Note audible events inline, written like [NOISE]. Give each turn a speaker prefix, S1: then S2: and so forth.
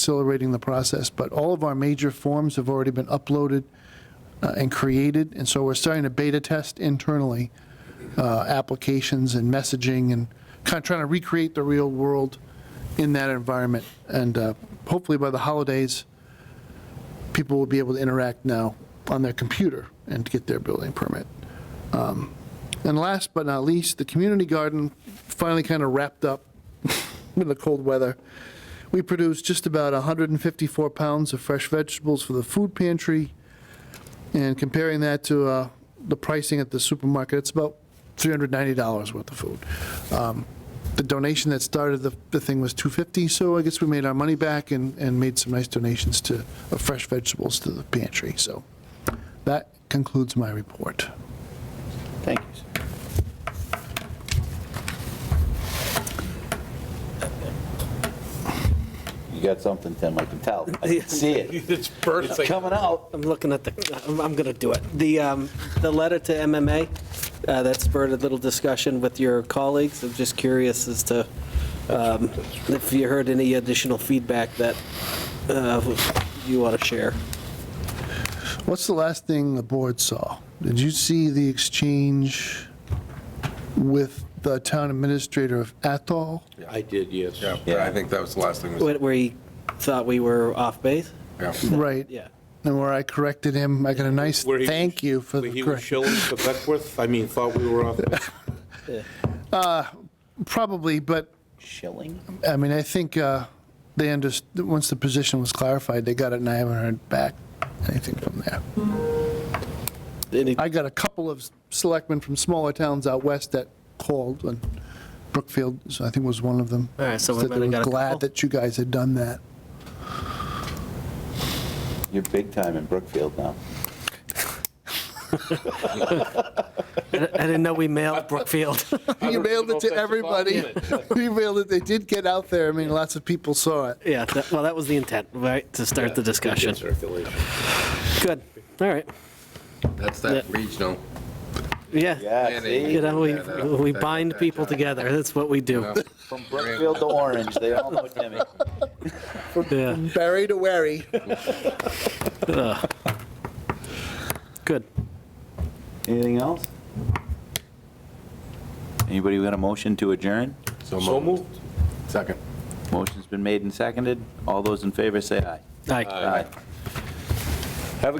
S1: accelerating the process, but all of our major forms have already been uploaded uh, and created, and so we're starting to beta test internally uh, applications and messaging and kind of trying to recreate the real world in that environment. And uh, hopefully by the holidays, people will be able to interact now on their computer and get their building permit. Um, And last but not least, the community garden finally kind of wrapped up [LAUGHS] in the cold weather. We produced just about 154 pounds of fresh vegetables for the food pantry, and comparing that to uh, the pricing at the supermarket, it's about $390 worth of food. Um, The donation that started the, the thing was 250, so I guess we made our money back and, and made some nice donations to, of fresh vegetables to the pantry, so that concludes my report.
S2: Thank you. sir. You got something, Tim, I can tell. I
S3: [LAUGHS]
S2: can see it.
S3: It's
S2: It's
S3: bursting.
S2: coming out.
S4: I'm looking at the, I'm- I'm going to do it. The, um, the letter to MMA, uh, that spurred a little discussion with your colleagues. I'm just curious as to um, if you heard any additional feedback that uh, you want to share.
S1: What's the last thing the board saw? Did you see the exchange with the town administrator of Athol?
S3: I did, yes.
S5: Yeah, I think that was the last thing. was-
S4: Where where he thought we were off base?
S5: yeah.
S1: Right.
S4: Yeah.
S1: And where I corrected him, I got a nice
S3: Where he-
S1: thank you for
S3: Where
S1: the
S3: he was
S1: correction.
S3: shilling for Beckwith, I mean, thought we were off.
S1: Probably, but,
S2: Shilling?
S1: I mean, I think uh, they understood, once the position was clarified, they got it, and I haven't heard back anything from there.
S4: Any-
S1: I got a couple of selectmen from smaller towns out west that called, and Brookfield, so I think was one of them.
S4: All right, so we
S1: Said they
S4: might have
S1: were
S4: got a couple.
S1: Glad that you guys had done that.
S2: You're big time in Brookfield now.
S4: I didn't know we mailed Brookfield.
S1: He mailed it to everybody. [LAUGHS] He mailed it, they did get out there, I mean, lots of people saw it.
S4: [LAUGHS] Yeah, that- well, that was the intent, right, to start the discussion.
S3: Circulation.
S4: Good, all right.
S5: That's
S4: that
S5: regional.
S4: Yeah,
S2: Yeah,
S5: Yeah,
S2: see?
S5: they-
S4: you know, we
S5: Yeah, that-
S4: we
S5: that-
S4: bind
S5: that-
S4: people
S5: that-
S4: together, that's what we do.
S2: From Brookfield to Orange, they all know Timmy.
S4: Yeah.
S1: Barry to wary.
S4: Good.
S2: Anything else? Anybody got a motion to adjourn?
S3: So moved.
S5: Second.
S2: Motion's been made and seconded. All those in favor say aye.
S4: All right.
S2: Aye.